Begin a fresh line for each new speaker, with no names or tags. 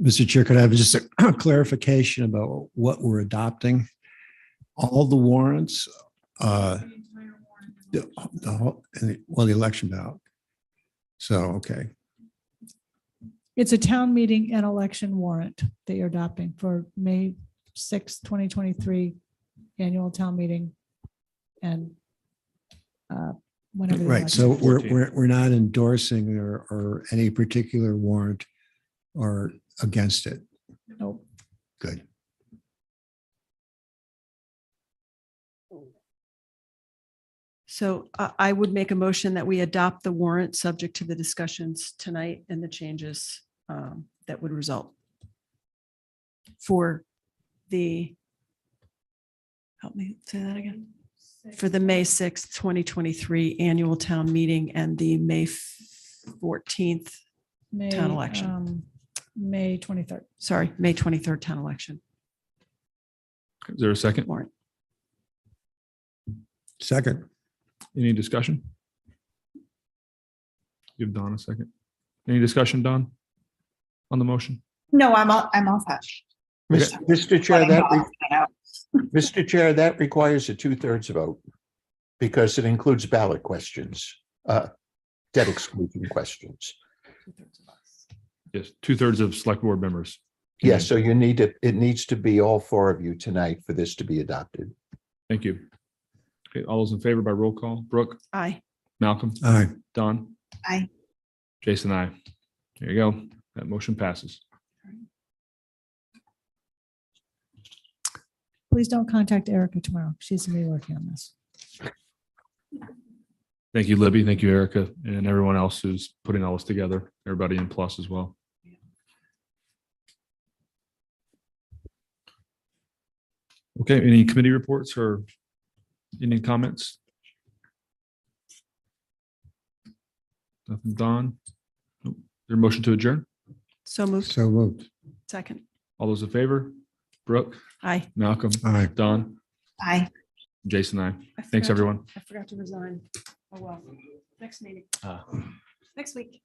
Mr. Chair, could I have just a clarification about what we're adopting? All the warrants, uh, the, the, whole- and the- well, the election ballot. So, okay,
It's a town meeting and election warrant that you're adopting for May sixth, twenty twenty-three annual town meeting. And uh, whenever. the
right.
election-
So we're,
14.
we're, we're not endorsing or, or any particular warrant or against it.
Nope.
Good.
So I, I would make a motion that we adopt the warrant subject to the discussions tonight and the changes um, that would result for the, help me say that again, for the May 6th, 2023 annual town meeting and the May 14th,
May,
Town election.
um, May twenty-third.
sorry, May 23rd town election
Is there a second?
warrant.
Second,
Any discussion? Give Don a second. Any discussion, Don? On the motion?
No, I'm all, I'm all set.
Mis- Mr. Chair, that, re-
That
Mr. Chair, that requires a two-thirds vote because it includes ballot questions, uh, debt exclusion questions.
Yes, two thirds of select board members. Mm-hmm.
Yes, so you need to, it needs to be all four of you tonight for this to be adopted.
Thank you. Okay, all those in favor by roll call, Brooke,
Aye.
Malcolm,
aye.
Don?
Aye.
Jason, I. There you go. That motion passes.
Please don't contact Erica tomorrow. She's gonna be working on this.
Thank you, Libby. Thank you, Erica, and everyone else who's putting all this together, everybody in plus as well. Okay, any committee reports or any comments? Nothing, Don? Nope. Is There a motion to adjourn?
So moved.
So moved.
Second.
All those in favor? Brooke,
Aye.
Malcolm,
Aye.
Don,
I,
Jason, I.
I
Thanks,
forgot to-
everyone.
I forgot to resign. Oh, well. Next meeting,
Ah.
next week.